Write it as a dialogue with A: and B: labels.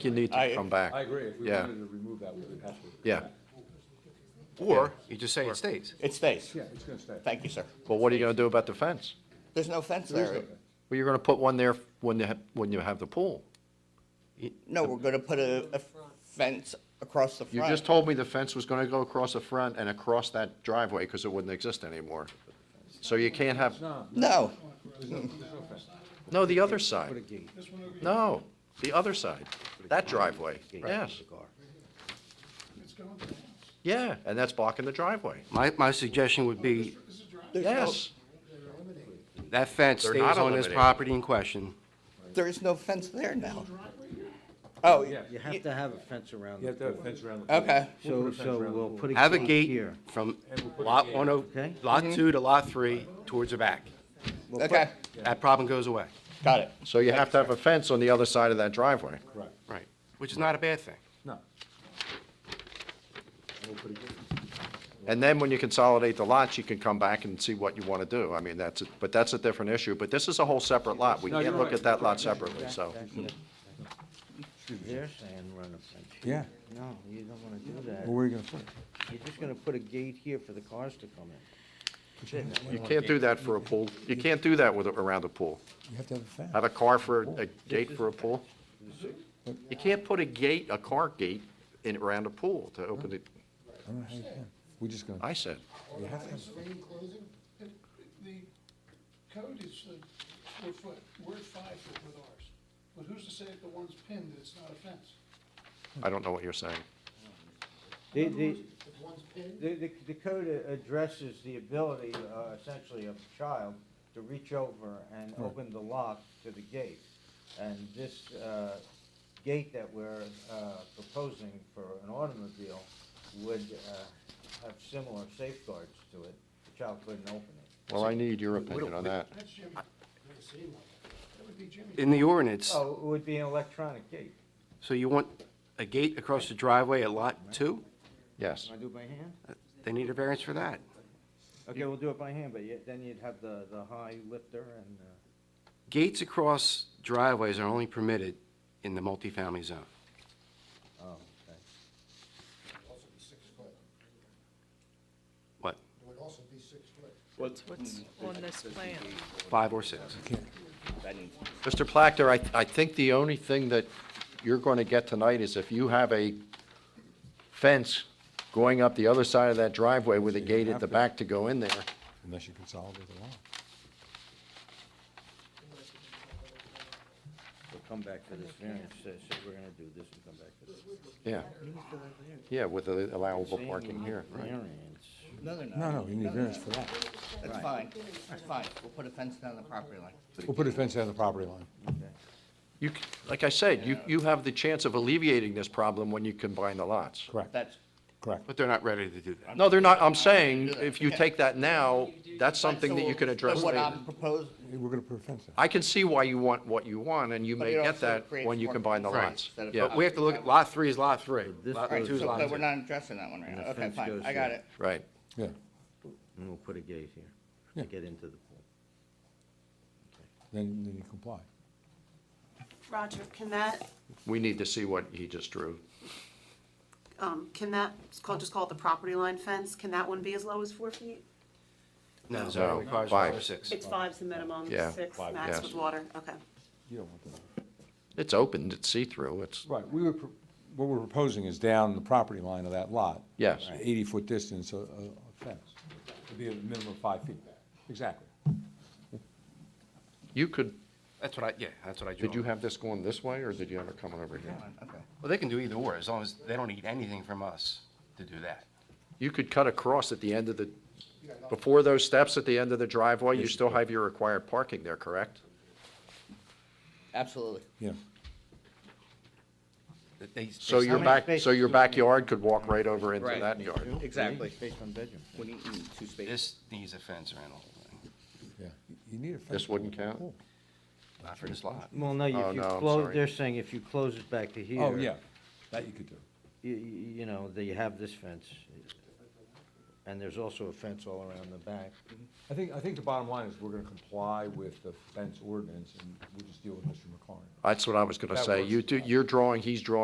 A: You need to
B: I-
A: come back.
C: I agree, if we
A: Yeah.
C: wanted to remove that, we would have to.
A: Yeah.
B: Or,
A: You just say it stays.
B: it stays.
C: Yeah, it's gonna stay.
B: Thank you, sir.
A: But what are you gonna do about the fence?
B: There's no fence
C: There is
B: there.
C: no fence.
A: Well, you're gonna put one there when you, ha- when you have the pool.
B: No, we're gonna put a, a fence across the
A: You just
B: front.
A: told me the fence was gonna go across the front and across that driveway, because it wouldn't exist anymore. So you can't have,
C: No,
B: No,
C: there's no, there's no fence.
A: no, the other side. No, the other side, that driveway, yes. Yeah, and that's blocking the driveway.
D: My, my suggestion would be,
A: Yes,
D: that fence
A: They're
D: stays
A: not
D: on this
A: eliminating.
D: property in question.
B: there is no fence there now. Oh,
C: Yeah.
E: You have to have a fence around
C: You
E: the
C: have to have a
E: pool.
C: fence around the. pool.
B: okay,
C: We'll put
E: So,
C: a fence
E: so
C: around the
E: we'll
C: pool.
E: put a
D: Have a
E: here.
D: gate from
C: we'll put a
D: lot
C: gate.
D: one oh,
E: Okay.
D: lot
F: Mm-hmm.
D: two to lot three towards the back.
E: We'll put-
B: okay,
D: That problem goes away.
B: got it.
A: so you have to have a fence on the other side of that driveway.
C: Right,
D: Right. Which is not a bad thing.
C: no. We'll put a gate.
A: And then when you consolidate the lots, you can come back and see what you want to do. I mean, that's, a- but that's a different issue, but this is a whole separate lot. We
C: No,
A: can't
C: you're
A: look
C: right.
A: at that lot separately, so.
E: They're saying run a fence.
F: Yeah.
E: No, you don't wanna do
F: Well,
E: that.
F: where are you gonna put it?
E: You're just gonna put a gate here for the cars to come in.
A: You can't do that for a pool. You can't do that with, a- around a pool.
F: You have to have a fence.
A: Have a car for, a gate for a pool? You can't put a gate, a car gate in, around a pool to open it,
F: I don't know how you can. We're just gonna,
A: I said.
F: you have to have, a fence.
G: Rain closing, the, the code is uh, four foot, we're at five foot with ours. But who's to say if the one's pinned that it's not a fence?
A: I don't know what you're saying.
E: The, the,
G: If one's pinned,
E: the, the- the code a- addresses the ability, uh, essentially of a child to reach over and open the lock to the gate. And this, uh, gate that we're, uh, proposing for an automobile would, uh, have similar safeguards to it. The child couldn't open it.
A: Well, I need your opinion on that.
G: that's Jimmy. Never seen one. That would be Jimmy.
D: In the ordinance,
E: Oh, it would be an electronic gate.
D: so you want a gate across the driveway at lot two?
A: Yes.
E: Can I do it by hand?
D: They need a variance for that.
E: Okay, we'll do it by hand, but yet, then you'd have the, the high lifter and, uh.
D: Gates across driveways are only permitted in the multifamily zone.
E: Oh, okay.
G: Also be six foot, it
D: What,
G: would also be six foot.
H: What's on this plan?
D: five or six?
A: Mr. Placter, I, I think the only thing that you're going to get tonight is if you have a fence going up the other side of that driveway with a gate at the back to go in there.
F: unless you consolidate the lot.
E: We'll come back to this variance, so, so we're gonna do this and come back to this.
A: Yeah. Yeah, with the allowable parking here, right?
E: Variance.
B: No, they're
F: No,
B: not.
F: no, you need variance for that.
B: That's fine, that's fine. We'll put a fence down the property line.
F: We'll put a fence down the property line.
A: You, c- like I said, you, you have the chance of alleviating this problem when you combine the lots.
F: Correct,
B: That's,
F: correct.
D: But they're not ready to do that.
A: No, they're not, I'm saying, if you take that now, that's something that you can address
B: but what
A: later.
B: I'm proposing.
F: We're gonna put a fence down.
A: I can see why you want what you want, and you
B: but
A: may
B: it
A: get
B: also
A: that
B: creates
A: when you
B: more
A: combine the
B: confusion
A: lots.
B: instead of-
A: Yeah.
D: But we have to look at, lot three is lot three,
E: This
D: lot
B: Alright,
D: two is
B: so,
D: lot
B: but
D: two.
B: we're not addressing that one right
E: the
B: now. Okay,
E: fence
B: fine,
E: goes
B: I got
E: here.
B: it.
A: Right.
F: Yeah,
E: And we'll put a gate here
F: Yeah.
E: to get into the pool.
F: then, then you comply.
I: Roger, can that,
A: We need to see what he just drew.
I: um, can that, it's called- just call it the property line fence, can that one be as low as four feet?
D: No,
A: No,
D: it requires five or
A: five.
D: six.
I: It's five's the minimum,
A: Yeah.
I: six
A: Five,
I: max
A: yes.
I: with water, okay.
F: You don't want that.
A: It's open, it's see-through, it's,
F: Right, we were, pro- what we're proposing is down the property line of that lot.
A: Yes.
F: Eighty-foot distance, a, a a fence. It'd be a minimum of five feet. Exactly.
A: you could,
D: That's what I, yeah, that's what I drew.
A: did you have this going this way, or did you have it coming over here?
B: Okay.
D: Well, they can do either or, as long as they don't need anything from us to do that.
A: You could cut across at the end of the, before those steps at the end of the driveway, you still have your required parking there, correct?
B: Absolutely.
F: Yeah,
D: That they- they
A: So your
D: somehow-
A: back, so your backyard could walk right over into
B: Right.
A: that yard.
B: Exactly.
E: Based on bedroom.
B: We need mm, two spaces.
D: This needs a fence around the whole thing,
F: yeah. You- You need a fence.
A: This wouldn't count?
F: Cool.
D: not for this lot.
E: Well, no,
A: Oh,
E: if you
A: no, I'm
E: close,
A: sorry.
E: they're saying if you close it back to here.
F: Oh, yeah, that you could do.
E: You, you know, that you have this fence. and there's also a fence all around the back.
F: I think, I think the bottom line is we're gonna comply with the fence ordinance, and we'll just deal with Mr. McLaurin.
A: That's what I was gonna
F: That
A: say.
F: works.
A: You do, you're drawing, he's drawing